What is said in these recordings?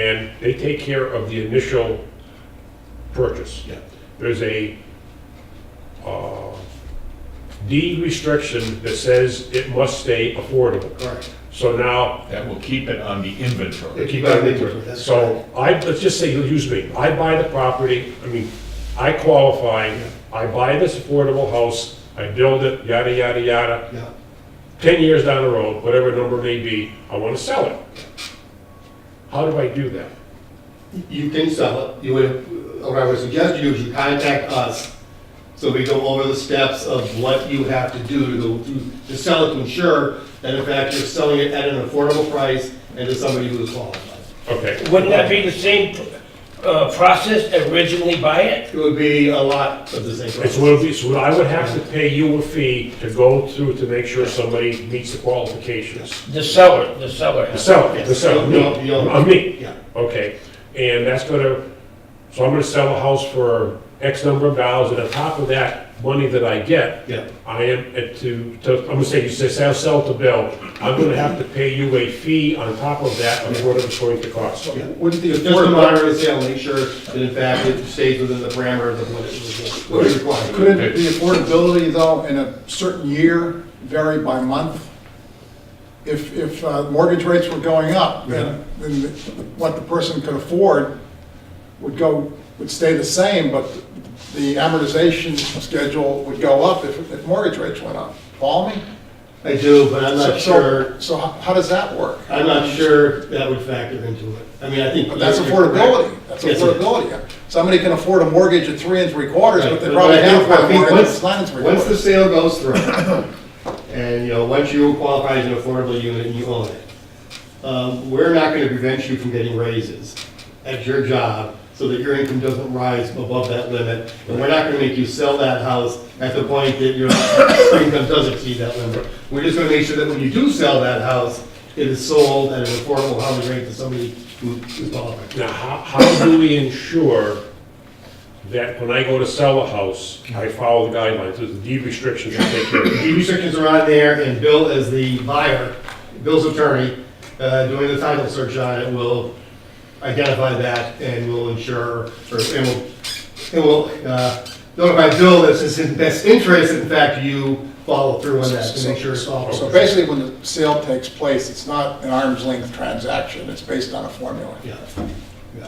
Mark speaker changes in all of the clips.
Speaker 1: And they take care of the initial purchase.
Speaker 2: Yeah.
Speaker 1: There's a uh, deed restriction that says it must stay affordable.
Speaker 2: Correct.
Speaker 1: So now,
Speaker 3: That will keep it on the inventory.
Speaker 2: Keep that in mind, that's
Speaker 1: so I, let's just say, you'll use me, I buy the property, I mean, I qualify, I buy this affordable house, I build it, yada, yada, yada.
Speaker 2: correct. Yeah,
Speaker 1: 10 years down the road, whatever number may be, I want to sell it. How do I do that?
Speaker 2: you can sell it, you would, what I would suggest you is you contact us, so we go over the steps of what you have to do to, go to- to sell it, to ensure that in fact you're selling it at an affordable price and to somebody who is qualified.
Speaker 1: Okay,
Speaker 4: Wouldn't that be the same uh, process originally buy it?
Speaker 2: It would be a lot of the same
Speaker 1: it's
Speaker 2: price.
Speaker 1: what, it'd be- so I would have to pay you a fee to go through to make sure somebody meets the qualifications.
Speaker 4: The seller, the seller.
Speaker 1: The seller, the seller, me,
Speaker 2: Yes, you'll- you'll-
Speaker 1: I'm me,
Speaker 2: Yeah,
Speaker 1: okay. And that's gonna, so I'm gonna sell a house for X number of dollars, and on top of that, money that I get,
Speaker 2: yeah,
Speaker 1: I am, at to, to, I'm gonna say, you say, sell, sell to bill, I'm gonna have to pay you a fee on top of that, of what it's going to cost.
Speaker 2: yeah. Just to monitor the sale, make sure that in fact it stays within the parameters of what it was, what is required.
Speaker 5: Couldn't the affordability, though, in a certain year vary by month? If, if uh, mortgage rates were going up, then, then what the person could afford would go, would stay the same, but the amortization schedule would go up if, if mortgage rates went up. Follow me?
Speaker 2: I do, but I'm
Speaker 5: So-
Speaker 2: not
Speaker 5: so-
Speaker 2: sure.
Speaker 5: So how how does that work?
Speaker 2: I'm not sure that would factor into it. I mean, I think.
Speaker 5: But that's
Speaker 2: you're- you're
Speaker 5: affordability,
Speaker 2: correct.
Speaker 5: that's
Speaker 2: Yes, it is.
Speaker 5: affordability. Somebody can afford a mortgage at three and three quarters,
Speaker 2: Right,
Speaker 5: but they
Speaker 2: but
Speaker 5: probably
Speaker 2: I think-
Speaker 5: have
Speaker 2: I
Speaker 5: one
Speaker 2: think
Speaker 5: mortgage
Speaker 2: once-
Speaker 5: that's nine and three
Speaker 2: Once the
Speaker 5: quarters.
Speaker 2: sale goes through, and, you know, once you qualify as an affordable unit and you own it, um, we're not gonna prevent you from getting raises at your job so that your income doesn't rise above that limit. And we're not gonna make you sell that house at the point that your income does exceed that limit. We're just gonna make sure that when you do sell that house, it is sold at an affordable housing rate to somebody who is qualified.
Speaker 1: Now, how, how do we ensure that when I go to sell a house, I follow the guidelines, there's the deed restrictions I take care of?
Speaker 2: The restrictions are on there, and Bill, as the buyer, Bill's attorney, uh, doing the title search on it, will identify that and will ensure, or, and will, and will uh, notify Bill that it's in his best interest, in fact, you follow through on that to make sure it's all.
Speaker 5: So basically, when the sale takes place, it's not an arm's length transaction, it's based on a formula.
Speaker 2: Yeah.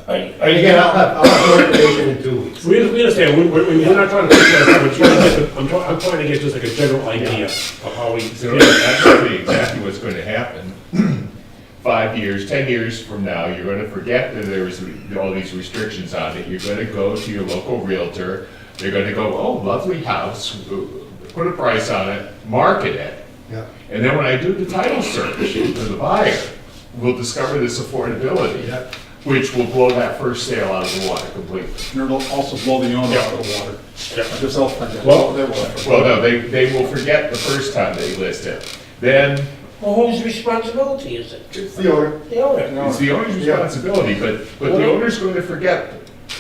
Speaker 4: Are you- are
Speaker 2: And
Speaker 4: you
Speaker 2: again, I'll have, I'll have more information in two weeks.
Speaker 1: We, we understand, we, we, we're not trying to, fix that, we're trying to get the- I'm trying, I'm trying to get just like a general idea of how we,
Speaker 3: So that's really exactly what's going to happen. Five years, 10 years from now, you're going to forget that there was all these restrictions on it. You're going to go to your local Realtor, they're going to go, oh, lovely house, put a price on it, market it.
Speaker 2: Yeah.
Speaker 3: And then when I do the title search for the buyer, we'll discover this affordability,
Speaker 2: Yep.
Speaker 3: which will blow that first sale out of the water completely.
Speaker 5: And it'll also blow the owner out of the water.
Speaker 1: Yeah.
Speaker 5: Just help them get-
Speaker 1: Well-
Speaker 5: they will.
Speaker 3: Well, no, they, they will forget the first time they list it. Then
Speaker 4: Well, whose responsibility is it?
Speaker 2: It's the order.
Speaker 4: The owner.
Speaker 3: It's the owner's responsibility, but, but the owner's going to forget,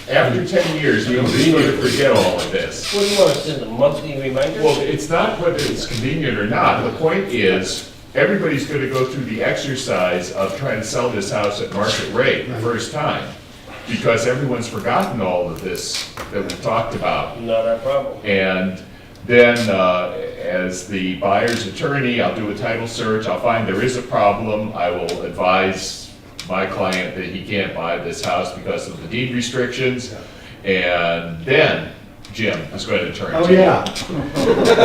Speaker 3: after ten years, the owner's going to forget all of this.
Speaker 4: What do you want, send a monthly reminder?
Speaker 3: Well, it's not whether it's convenient or not, the point is, everybody's gonna go through the exercise of trying to sell this house at market rate the first time, because everyone's forgotten all of this that we've talked about.
Speaker 4: Not our problem.
Speaker 3: And then, uh, as the buyer's attorney, I'll do a title search, I'll find there is a problem, I will advise my client that he can't buy this house because of the deed restrictions, and then Jim is going to turn to
Speaker 2: Oh,
Speaker 3: you.
Speaker 2: yeah.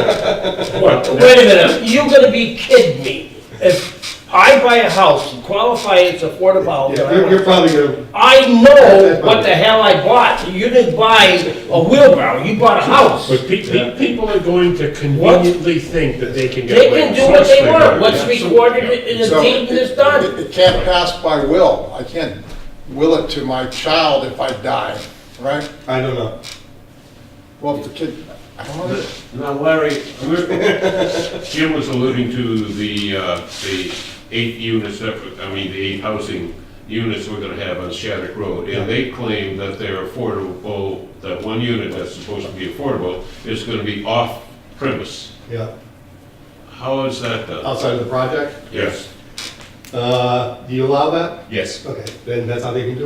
Speaker 1: What?
Speaker 4: Wait a minute, you're gonna be kidding me. If I buy a house and qualify it's affordable,
Speaker 2: Yeah, You're, you're probably gonna,
Speaker 4: I know what the hell I bought. You didn't buy a wheelbarrow, you bought a house.
Speaker 1: But pe- pe- people are going to conveniently think that they can get
Speaker 4: They
Speaker 1: away.
Speaker 4: can
Speaker 1: with
Speaker 4: do
Speaker 1: it.
Speaker 4: what they
Speaker 3: Yes,
Speaker 4: want,
Speaker 3: they
Speaker 4: what's
Speaker 3: do.
Speaker 4: recorded in the
Speaker 5: So
Speaker 4: deed is
Speaker 5: it-
Speaker 4: done.
Speaker 5: it- It can't pass by will, I can't will it to my child if I die, right?
Speaker 2: I don't know.
Speaker 5: Well, if the kid, I don't know.
Speaker 6: Now Larry, we're- Jim was alluding to the, uh, the eight units, that I mean, the eight housing units we're gonna have on Shattuck Road. And they claim that they're affordable, that one unit that's supposed to be affordable is gonna be off premise.
Speaker 2: Yeah.
Speaker 6: How is that done?
Speaker 2: Oh. Outside of the project?
Speaker 6: Yes.
Speaker 2: Uh, do you allow that?
Speaker 3: Yes.
Speaker 2: Okay, then that's how they can do it.